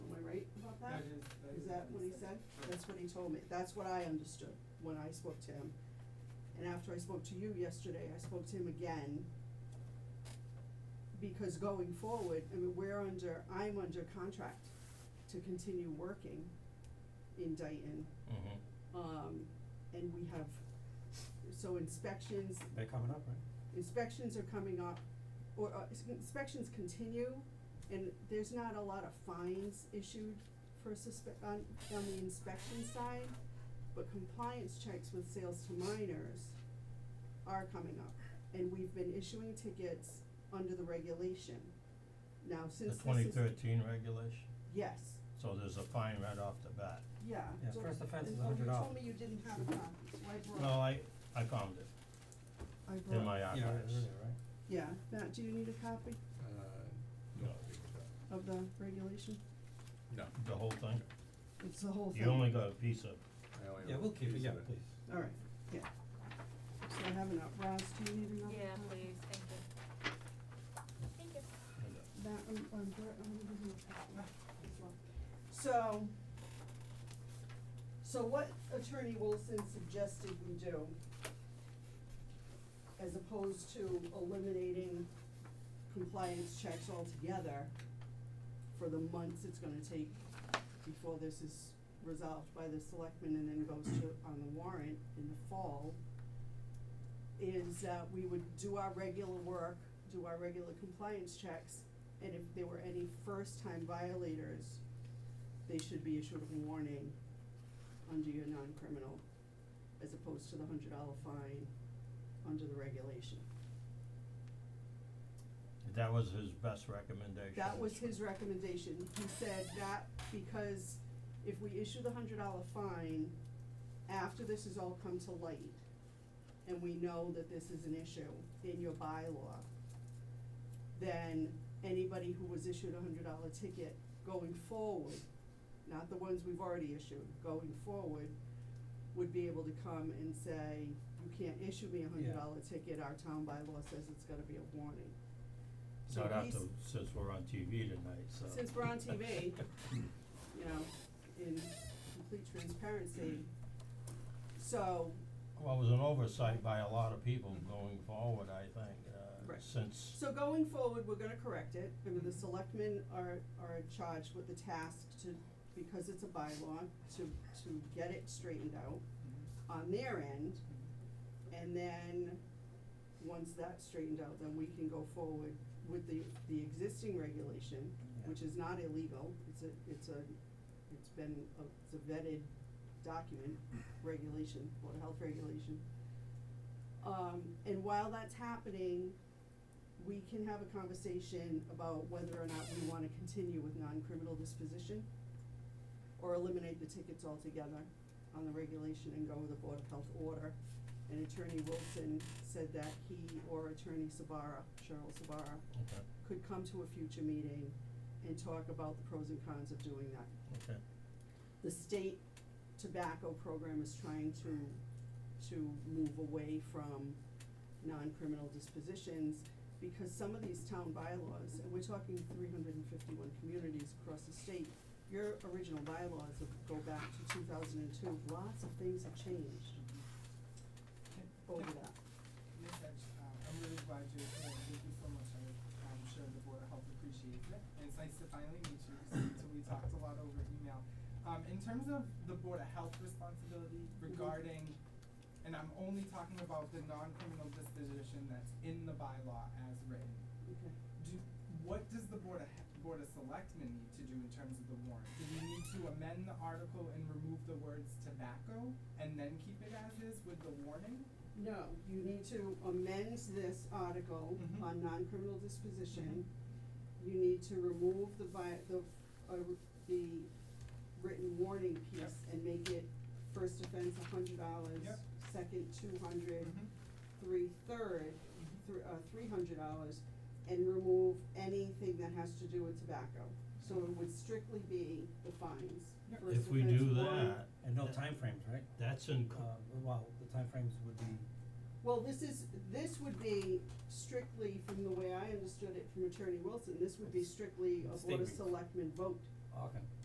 that what he said? That's what he told me. That's what I understood when I spoke to him. And after I spoke to you yesterday, I spoke to him again. Because going forward, I mean, we're under, I'm under contract to continue working in Dayton. Mhm. Um, and we have, so inspections, They're coming up, right? inspections are coming up, or uh, ins- inspections continue, and there's not a lot of fines issued for suspe- on, on the inspection side, but compliance checks with sales to minors are coming up, and we've been issuing tickets under the regulation. Now, The since this twenty is. thirteen regulation, Yes, so there's a fine right off the bat. yeah. Yeah, so- first offense and- is oh, $100. you told me you didn't have a copy, so I brought. No, I, I found it I in brought- my Yeah, archives. earlier, right? Yeah, Matt, do you need a copy Uh, No, of the regulation? no, the whole thing, It's the whole thing. you only got a piece of, I only have Yeah, a we'll keep it, piece yeah, of please. All right, yeah. So I have enough, Roz, do you need another? Yeah, copy? please, thank you. Thank you. That, um, um, there- um, there's no copy as well. So, so what Attorney Wilson suggested we do, as opposed to eliminating compliance checks altogether for the months it's gonna take before this is resolved by the selectmen and then goes to, on the warrant in the fall, is that we would do our regular work, do our regular compliance checks, and if there were any first-time violators, they should be issued a warning under your non-criminal, as opposed to the hundred dollar fine under the regulation. that was his best recommendation. That was his recommendation, he said that because if we issue the hundred dollar fine, after this has all come to light, and we know that this is an issue in your bylaw, then anybody who was issued a hundred dollar ticket going forward, not the ones we've already issued, going forward, would be able to come and say, you can't issue me a hundred dollar ticket, our town bylaw says it's gonna be a warning. So Not he's- after, since we're on TV tonight, so. Since we're on TV, you know, in complete transparency. So, Well, it was an oversight by a lot of people going forward, I think, uh, Right. since, so going forward, we're gonna correct it, I mean, the selectmen are, are charged with the task to, because it's a bylaw, to, to get it straightened out on their end. And then, once that's straightened out, then we can go forward with the, the existing regulation, which is not illegal, it's a, it's a, it's been, a- it's a vetted document, regulation, Board of Health regulation. Um, and while that's happening, we can have a conversation about whether or not we wanna continue with non-criminal disposition or eliminate the tickets altogether on the regulation and go with a Board of Health order. And Attorney Wilson said that he or Attorney Sabara, Cheryl Sabara, okay, could come to a future meeting and talk about the pros and cons of doing that. okay, The state tobacco program is trying to, to move away from non-criminal dispositions because some of these town bylaws, and we're talking three hundred and fifty-one communities across the state, your original bylaws that go back to two thousand and two, lots of things have changed over that. Yes, that's, um, I'm really glad you're here, thank you so much, I, I'm sure the Board of Health appreciates it, and it's nice to finally meet you, so we talked a lot over email. Um, in terms of the Board of Health responsibility regarding, and I'm only talking about the non-criminal disposition that's in the bylaw as written. Okay. Do, what does the Board of, He- Board of Selectmen need to do in terms of the warrant? Do we need to amend the article and remove the words tobacco and then keep it as is with the warning? No, you need to amend this article Mhm. on non-criminal disposition. Mm-hmm. You need to remove the vi- the, uh, the written warning Yep. piece and make it first offense a hundred dollars, Yep. second two hundred, Mhm. three third, Mm-hmm. thr- uh, three hundred dollars, and remove anything that has to do with tobacco. So it would strictly be the fines. Yep. First if we offense do one, that, And no Th- timeframes, right? that's in, co- Uh, well, the timeframes would be, Well, this is, this would be strictly, from the way I understood it from Attorney Wilson, this would be strictly a Board of Statement. Selectmen vote. okay,